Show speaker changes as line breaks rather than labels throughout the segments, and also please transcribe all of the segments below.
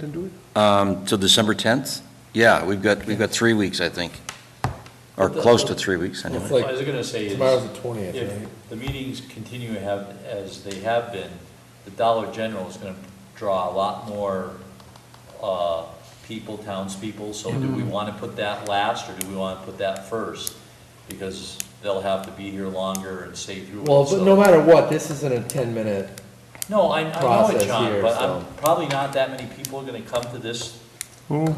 Then do it.
Um, Till December 10th? Yeah, we've got, we've got three weeks, I think, or close to three weeks, anyway.
I was gonna say is.
Tomorrow's the 20th, right?
If the meetings continue to have, as they have been, the Dollar General is gonna draw a lot more, uh, people, townspeople, so do we wanna put that last, or do we wanna put that first? Because they'll have to be here longer and stay through it,
Well, but no
so-
matter what, this isn't a ten-minute,
No, I, I know
process
it, John,
here,
but
so.
I'm, probably not that many people are gonna come to this, the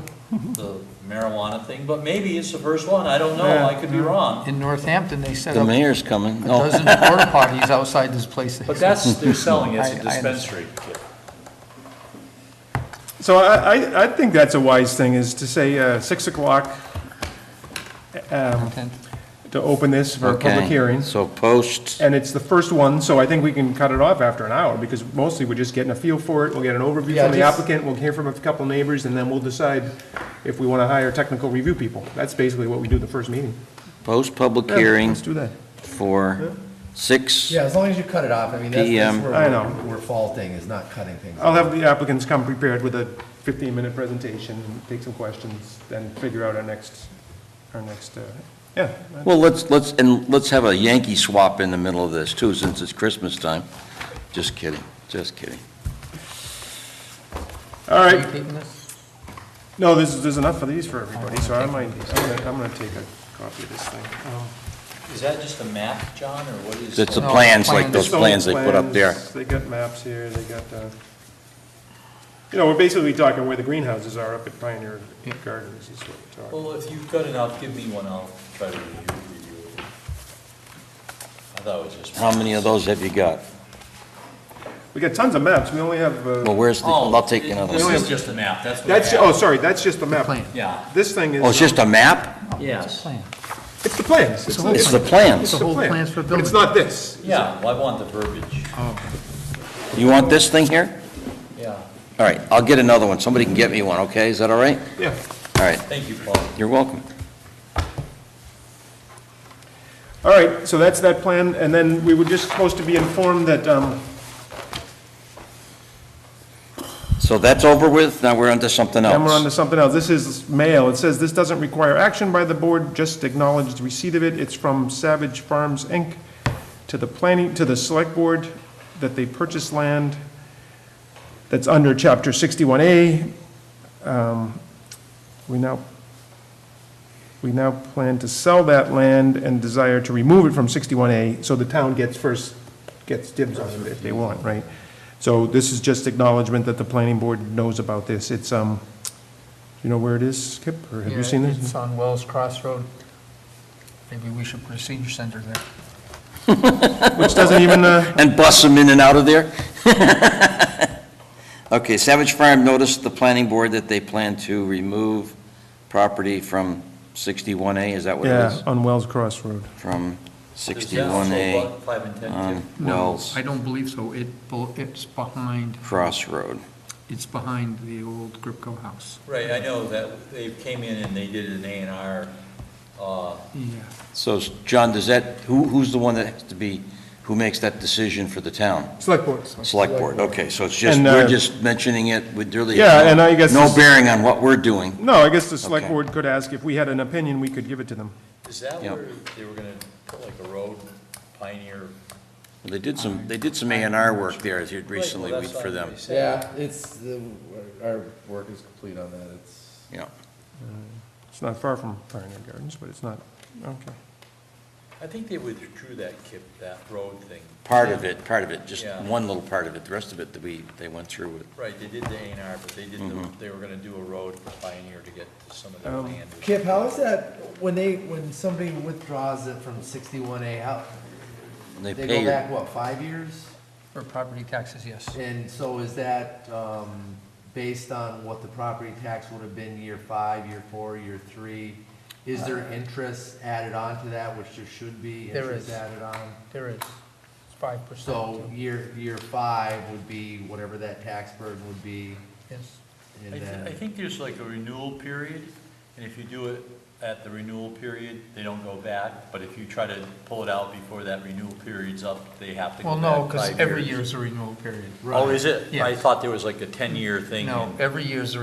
marijuana thing, but maybe it's the first one, I don't know, I could be wrong.
In Northampton, they set
The
up a
mayor's coming. Oh, No.
dozen porta potties outside this place.
But that's, they're selling it as
I- I
a
understand.
dispensary.
So I, I, I think that's a wise thing, is to say, uh, six o'clock, um, to open this for a public
Okay.
hearing.
So post,
And it's the first one, so I think we can cut it off after an hour, because mostly we're just getting a feel for it, we'll get an overview
Yeah,
from the
just-
applicant, we'll hear from a couple neighbors, and then we'll decide if we wanna hire technical review people. That's basically what we do the first meeting.
post public
Yeah,
hearing
Let's do that.
for six,
Yeah, as long as you cut it off, I mean, that's, that's
PM.
where
I know.
we're- we're faulting, is not cutting things.
I'll have the applicants come prepared with a fifteen-minute presentation, take some questions, then figure out our next, our next, uh, yeah.
well, let's, let's, and let's have a Yankee swap in the middle of this, too, since it's Christmas time. Just kidding, just kidding.
All right,
Right.
No, there's, there's enough of these for everybody, so I might, I'm gonna, I'm gonna take a copy of this thing. Um,
Is that just a map, John, or what is?
It's the
No,
plans, like
plans.
those plans they put up there.
Plans, They got maps here, they got, uh, you know, we're basically talking where the greenhouses are up at Pioneer
Yeah.
Gardens is what we're talking.
Well, if you've got enough, give me one, I'll try to review review it. I thought it was just.
How many of those have you got?
We got tons of maps, we only have, uh,
Well, where's the,
Oh,
I'll take
it-
another
This
one.
is just a map, that's what I
that's,
have.
oh, sorry, that's just the map.
Plan.
Yeah,
This thing is.
Oh, it's just
uh,
a map?
yes,
It's the plans. It's not-
It's the
it's
plans.
The whole
plan,
plans for
But it's
building.
not this.
yeah, well, I want the verbiage,
You want this thing here?
yeah,
All right, I'll get another one. Somebody can get me one, okay? Is that all right?
Yeah.
All right,
thank you, Paul.
you're welcome.
All right, so that's that plan, and then we were just supposed to be informed that, um,
So that's over with, now we're onto something else.
Then we're on to something else. This is mail. It says, "This doesn't require action by the board, just acknowledge the receipt of it." It's from Savage Farms, Inc., to the planning, to the select board, that they purchase land that's under Chapter 61A. Um, We now, we now plan to sell that land and desire to remove it from 61A, so the town gets first, gets dibs on it if they want, right? So this is just acknowledgement that the planning board knows about this. It's, um, you know where it is, Kip, or have you seen
It's
this?
on Wells Cross Road. Maybe we should put a senior center there.
Which doesn't even, uh,
And bust them in and out of there? Okay, Savage Farm noticed the planning board that they plan to remove property from 61A, is that what it
yeah,
is?
on Wells Cross Road.
From
Is that also
61A
what Five and ten,
on
too.
Wells
I don't believe so. It, bel- it's behind,
Crossroad.
it's behind the old Gripco house.
Right, I know that they came in and they did an A and R, uh,
Yeah.
So, John, does that, who, who's the one that has to be, who makes that decision for the town?
Select board.
Select board, okay, so it's just,
And,
we're
uh,
just mentioning it, with really.
Yeah, and I guess
No
this-
bearing on what we're doing.
No, I guess the select
Okay.
board could ask if we had an opinion, we could give it to them.
is that
Yep.
where they were gonna put like a road, Pioneer?
Well, They did some, they did some A and R work there as you recently
Right, well,
we-
that's what
for
I'm
them,
gonna say.
Yeah, it's, the- our work is complete on that, it's.
yeah.
It's not far from Pioneer Gardens, but it's not, okay.
I think they withdrew that, Kip, that road thing.
Part of it, part of it, just
Yeah.
one little part of it, the rest of it that we, they went through with.
Right, they did the A and R, but they did, the- they were gonna do a road for Pioneer to get to some of their
Um,
land. or
Kip,
something.
how is that, when they, when somebody withdraws it from sixty-one A, how,
They
they go
paid,
back, what, five years?
For property taxes, yes.
And so is that, um, based on what the property tax would have been year five, year four, year three? Is there interest added on to that, which there should be
Uh, There
interest
is.
added on?
There is five percent.
So year, year five would be whatever that tax burden would be,
Yes.
I
and
thi- I
then,
think there's like a renewal period, And if you do it at the renewal period, they don't go back, but if you try to pull it out before that renewal period's up, they have to go
Well,
back
no, because
five
every
years.
year is a renewal period.
Oh, is it? I
Yes.
thought there was like a ten-year thing.
No,
and-
every year is a